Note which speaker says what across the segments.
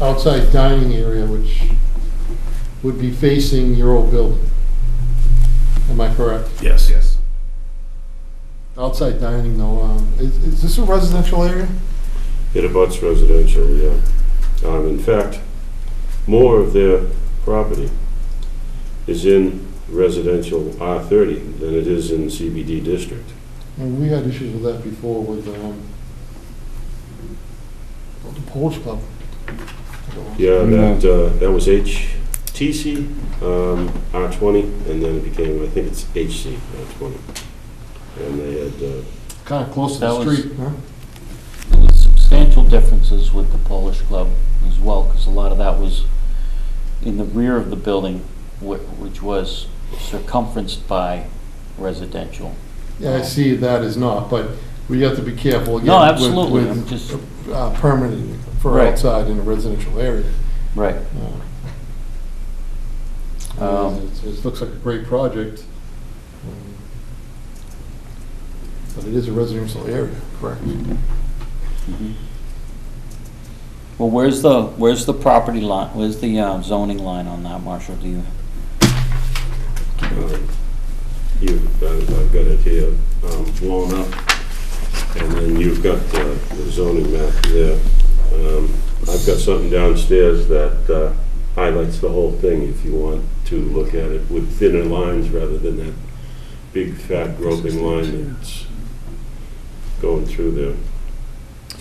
Speaker 1: outside dining area, which would be facing your old building. Am I correct?
Speaker 2: Yes. Yes.
Speaker 1: Outside dining though, um, is, is this a residential area?
Speaker 3: It abuts residential, yeah. Um, In fact, more of their property is in residential R30 than it is in CBD district.
Speaker 1: And we had issues with that before with, um, the Polish Club.
Speaker 3: Yeah, that, uh, that was HTC, um, R20, and then it became, I think it's HC, R20. And they had, uh,
Speaker 1: Kinda close to the
Speaker 4: That was-
Speaker 1: street, huh?
Speaker 4: There was substantial differences with the Polish Club as well, because a lot of that was in the rear of the building, wh- which was circumferenced by residential.
Speaker 1: Yeah, I see that is not, but we have to be careful again.
Speaker 4: Oh. No,
Speaker 1: with-
Speaker 4: absolutely, I'm
Speaker 1: with,
Speaker 4: just-
Speaker 1: uh, Permitting for
Speaker 4: Right.
Speaker 1: outside in a residential area.
Speaker 4: Right.
Speaker 1: Uh,
Speaker 4: Um,
Speaker 1: it's- It looks like a great project. um, But it is a residential area, correct?
Speaker 4: Mm-hmm. Well, where's the, where's the property line, where's the uh, zoning line on that, Marshall, do you?
Speaker 3: um, you've, I've I've got it here um, blown up, and then you've got the the zoning map there. Um, I've got something downstairs that uh, highlights the whole thing if you want to look at it with thinner lines rather than that big fat groping line that's going through there.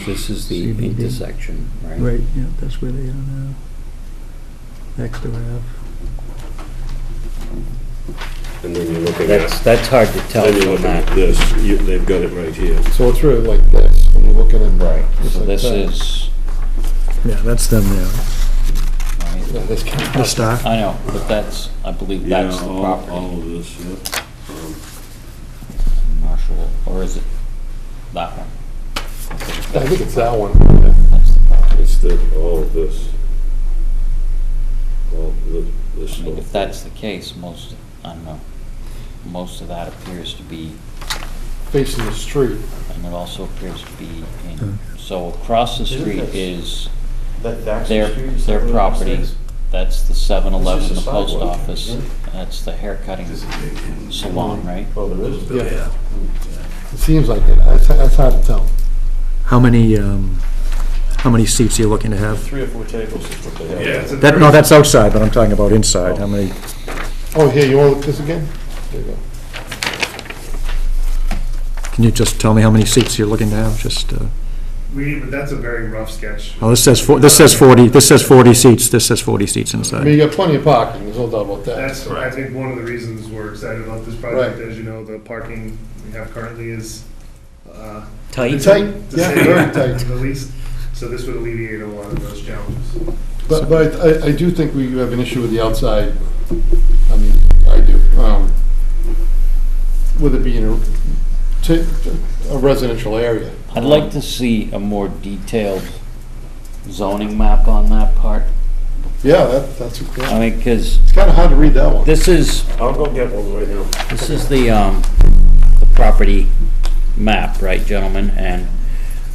Speaker 5: This is the
Speaker 6: CBD.
Speaker 5: intersection, right?
Speaker 6: Right, yeah, that's where they are now. Next to Ave.
Speaker 3: And then you're looking
Speaker 5: That's,
Speaker 3: at,
Speaker 5: that's hard to tell
Speaker 3: then you're
Speaker 5: from
Speaker 3: looking at
Speaker 5: that.
Speaker 3: this, You- they've got it right here.
Speaker 1: So it's really like this, when you're looking at. just
Speaker 4: So
Speaker 1: like
Speaker 4: this
Speaker 1: that.
Speaker 4: is,
Speaker 6: Yeah, that's them there.
Speaker 1: Yeah, that's kind of-
Speaker 6: The star.
Speaker 4: I know, but that's, I believe that's
Speaker 3: Yeah,
Speaker 4: the
Speaker 3: all-
Speaker 4: property,
Speaker 3: All of this, yeah. Um,
Speaker 4: Marshall, or is it that one?
Speaker 1: I think it's that one. yeah.
Speaker 4: That's the property.
Speaker 3: It's the, all of this. All the, this.
Speaker 4: I mean,
Speaker 3: whole-
Speaker 4: if that's the case, most, I don't know, most of that appears to be,
Speaker 1: Facing the street.
Speaker 4: and it also appears to be
Speaker 6: Hmm.
Speaker 4: in, so across the
Speaker 7: Isn't
Speaker 4: street
Speaker 7: this-
Speaker 4: is,
Speaker 7: That Daxton
Speaker 4: Their-
Speaker 7: Street is
Speaker 4: their
Speaker 7: that where it
Speaker 4: property.
Speaker 7: is?
Speaker 4: that's the 7-Eleven, the
Speaker 7: It's just a
Speaker 4: post
Speaker 7: sidewalk,
Speaker 4: office,
Speaker 7: isn't
Speaker 4: that's the haircutting salon, right?
Speaker 7: Well, there is.
Speaker 1: Yeah. It seems like it, that's, that's hard to tell.
Speaker 6: How many, um, how many seats are you looking to have?
Speaker 7: Three or four tables is what they have.
Speaker 2: Yeah. it's a
Speaker 6: That,
Speaker 2: very-
Speaker 6: no, that's outside, but I'm talking about inside, how many?
Speaker 1: Oh, here, you want to look this again? There you go.
Speaker 6: Can you just tell me how many seats you're looking to have, just, uh,
Speaker 2: We, but that's a very rough sketch.
Speaker 6: oh, this says, four- this says 40, this says 40 seats, this says 40 seats
Speaker 1: I mean,
Speaker 6: inside.
Speaker 1: you got plenty of parking, there's no doubt about that.
Speaker 2: That's, I think, one of the reasons we're excited about this project.
Speaker 1: Right.
Speaker 2: As you know, the parking we have currently is, uh,
Speaker 5: Tight?
Speaker 1: Tight,
Speaker 2: to
Speaker 1: yeah,
Speaker 2: say
Speaker 1: very tight.
Speaker 2: The least, so this would alleviate a lot of those challenges.
Speaker 1: But, but I, I do think we have an issue with the outside, I mean, I do, um, with it being a, to, a residential area.
Speaker 4: I'd like to see a more detailed zoning map on that part,
Speaker 1: Yeah, that, that's, yeah.
Speaker 4: I mean, because
Speaker 1: it's kinda hard to read that one.
Speaker 4: this is,
Speaker 3: I'll go get one right now.
Speaker 4: This is the, um, the property map, right, gentlemen? And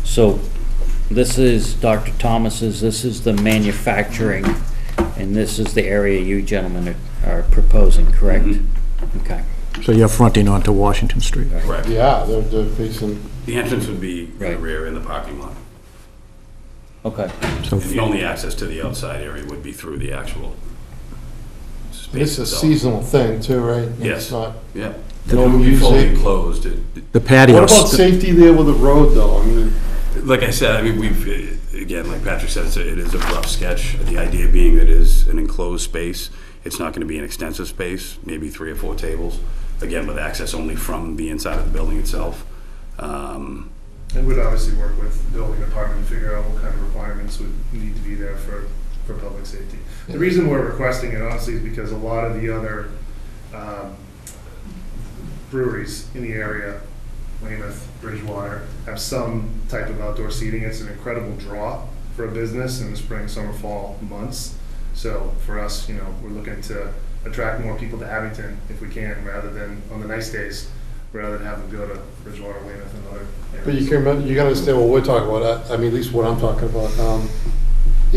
Speaker 4: so this is Dr. Thomas's, this is the manufacturing, and this is the area you gentlemen are- are proposing, correct? Okay.
Speaker 6: So you're fronting onto Washington Street.
Speaker 8: Correct.
Speaker 1: Yeah, they're, they're facing,
Speaker 8: The entrance would be in the
Speaker 4: Right.
Speaker 8: rear in the parking lot.
Speaker 4: Okay.
Speaker 6: So
Speaker 8: And the only access to the outside area would be through the actual space
Speaker 1: it's a
Speaker 8: itself.
Speaker 1: seasonal thing too, right?
Speaker 8: Yes.
Speaker 1: It's not,
Speaker 8: Yeah. It
Speaker 1: no
Speaker 8: would be fully
Speaker 1: music.
Speaker 8: enclosed. It- it-
Speaker 6: the
Speaker 1: What
Speaker 6: patios.
Speaker 1: about safety there with the road though? I mean,
Speaker 8: Like I said, I mean, we've, uh, again, like Patrick said, it's a- it is a rough sketch. The idea being that it is an enclosed space. It's not going to be an extensive space, maybe three or four tables, again, with access only from the inside of the building itself. Um,
Speaker 2: And we'd obviously work with the building department to figure out what kind of requirements would need to be there for, for public safety. The reason we're requesting it honestly is because a lot of the other um, breweries in the area, Weymouth, Bridgewater, have some type of outdoor seating. It's an incredible draw for a business in the spring, summer, fall months. So for us, you know, we're looking to attract more people to Abington if we can, rather than, on the nice days, rather than have them go to Bridgewater, Weymouth, and other areas.
Speaker 1: But you can, remember- you gotta understand what we're talking about, I, I mean, at least what I'm talking about, um,